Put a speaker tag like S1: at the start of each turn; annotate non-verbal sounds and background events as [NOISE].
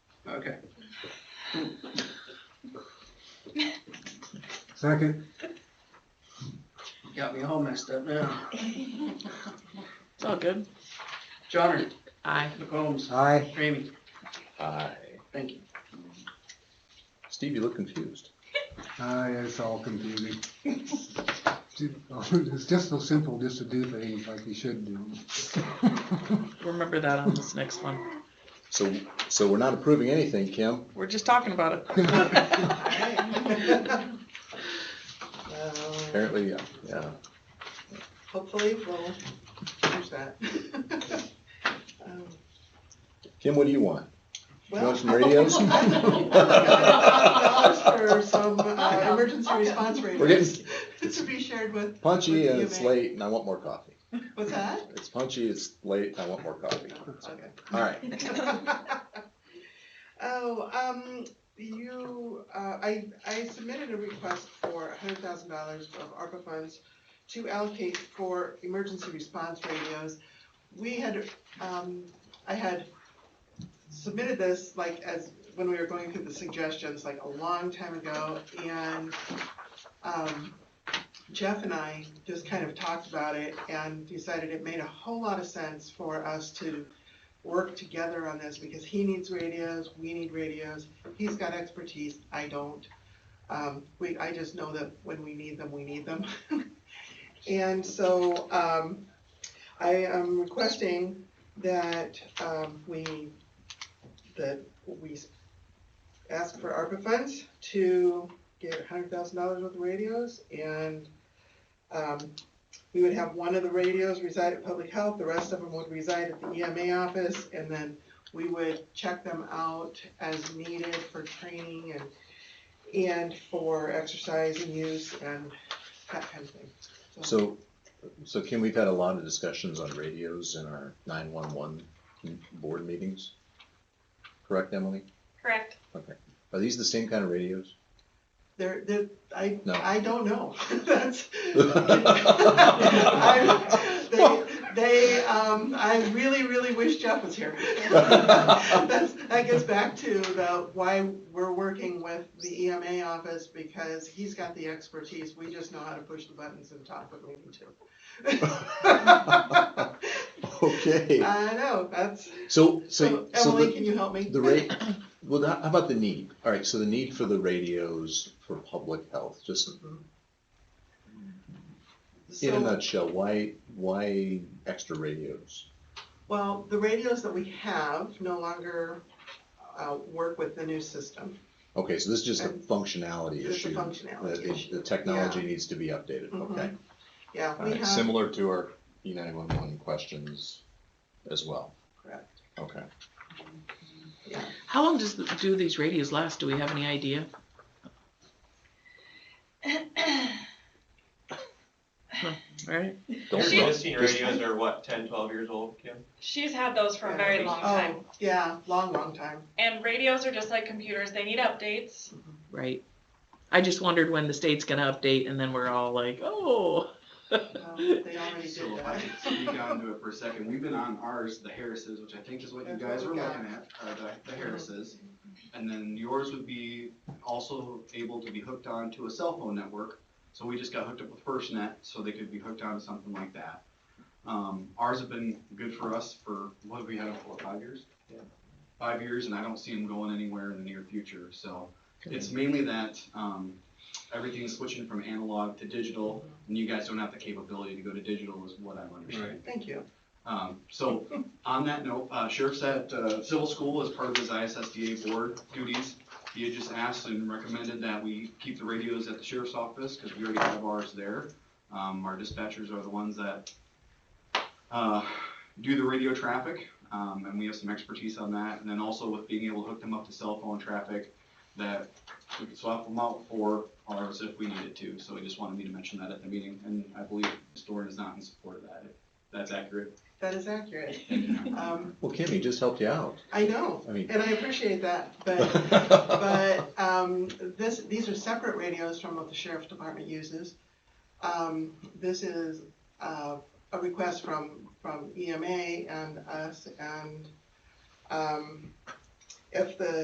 S1: Okay.
S2: Second,
S1: Got me all messed up now.
S3: It's all good.
S1: Johnner,
S3: Aye.
S1: McCombs,
S2: aye.
S1: Ramey,
S4: Aye.
S1: thank you.
S4: Uh, Steve, you look confused.
S2: Aye, it's all confusing. [LAUGHS] It's just so simple just to do things like you should do. [LAUGHS]
S3: Remember that on this next one.
S4: So, so we're not approving anything, Kim?
S3: We're just talking about it.
S1: [LAUGHS] Alright.
S5: Uh,
S4: Apparently, yeah, yeah.
S5: Hopefully, we'll change that. [LAUGHS] Um,
S4: Kim, what do you want?
S5: well-
S4: want some
S5: [LAUGHS]
S4: radios?
S5: Dollars For some uh, emergency response
S4: [LAUGHS] We're
S5: radios
S4: getting
S5: to be shared with,
S4: punchy and it's
S5: With you,
S4: late and I want more coffee.
S5: what's that?
S4: It's punchy, it's late, and I want more coffee.
S5: Okay.
S4: All right.
S5: [LAUGHS] Oh, um, you, uh, I, I submitted a request for hundred thousand dollars of ARPA funds to allocate for emergency response radios. We had, um, I had submitted this like as, when we were going through the suggestions, like a long time ago, and, um, Jeff and I just kind of talked about it and decided it made a whole lot of sense for us to work together on this because he needs radios, we need radios, he's got expertise, I don't. Um, we, I just know that when we need them, we need them. And so, um, I am requesting that, um, we, that we ask for ARPA funds to get hundred thousand dollars worth of radios and, um, we would have one of the radios reside at public health, the rest of them would reside at the EMA office, and then we would check them out as needed for training and, and for exercise and use and that kind of thing.
S4: So, so Kim, we've had a lot of discussions on radios in our nine-one-one board meetings. Correct, Emily?
S6: Correct.
S4: Are these the same kind of
S5: [LAUGHS]
S4: radios? [LAUGHS]
S5: There, there, I,
S4: No.
S5: I don't know, [LAUGHS]
S4: [LAUGHS]
S5: that's. I- They, they, um, I really, really wish Jeff was here. [LAUGHS] That's, that gets back to the, why we're working with the EMA office, because he's got the expertise, we just know how to push the buttons and talk when we need
S4: [LAUGHS]
S5: to. [LAUGHS]
S4: Okay,
S5: I know, that's,
S4: so,
S5: so
S4: so, so
S5: Emily,
S4: the,
S5: can you help me?
S4: the rate, well, how how about the need? All right, so the need for the radios for public health, just in
S5: [LAUGHS] So-
S4: a nutshell, why, why extra radios?
S5: Well, the radios that we have no longer uh, work with the new system.
S4: Okay, so this is just a
S5: And
S4: functionality
S5: It's a
S4: issue. that
S5: functionality
S4: the-
S5: issue.
S4: The technology needs to be updated,
S5: Mhm.
S4: okay?
S5: Yeah,
S4: All
S5: we
S4: right,
S5: have,
S4: Similar to our E nine one one questions as well.
S5: Correct.
S4: Okay.
S3: How long does do these radios last? Do we have any idea? All right.
S4: Don't
S6: She-
S4: look.
S7: Existing radios are what, 10, 12 years old, Kim?
S6: [CLEARS THROAT] She's had those for a very long time.
S5: oh, yeah, long, long time.
S6: And radios are just like computers, they need updates.
S8: Mm-hmm.
S3: Right. I just wondered when the state's gonna update, and then we're all like, oh.
S5: Um, They already
S8: So
S5: did
S8: if I
S5: that.
S8: could speak onto it for a second, we've been on ours, the Harris's, which I think is what you
S5: That's what
S8: guys
S5: we
S8: were
S5: got.
S8: looking at, uh, the, the Harris's. And then yours would be also able to be hooked on to a cell phone network, so we just got hooked up with FirstNet, so they could be hooked on to something like that. Um, ours have been good for us for, what have we had them for, five years? Five years, and I don't see them going anywhere in the near future, so it's mainly that, um, everything's switching from analog to digital, and you guys don't have the capability to go to digital is what I'm understanding.
S5: Thank you.
S8: Um, so, on that note, uh, Sheriff's at, uh, Civil School as part of his ISSDA board duties. He had just asked and recommended that we keep the radios at the sheriff's office, cause we already have ours there. Um, our dispatchers are the ones that, uh, do the radio traffic, um, and we have some expertise on that. And then also with being able to hook them up to cell phone traffic, that we could swap them out for ours if we needed to. So he just wanted me to mention that at the meeting, and I believe Storin is not in support of that, if that's accurate.
S5: That is accurate. Um,
S4: Well, Kim, he just helped you out.
S5: I know,
S4: I mean.
S5: and I appreciate that, but, but, um, this, these are separate radios from what the sheriff's department uses. Um, this is, uh, a request from, E from EMA and us, and, um, if the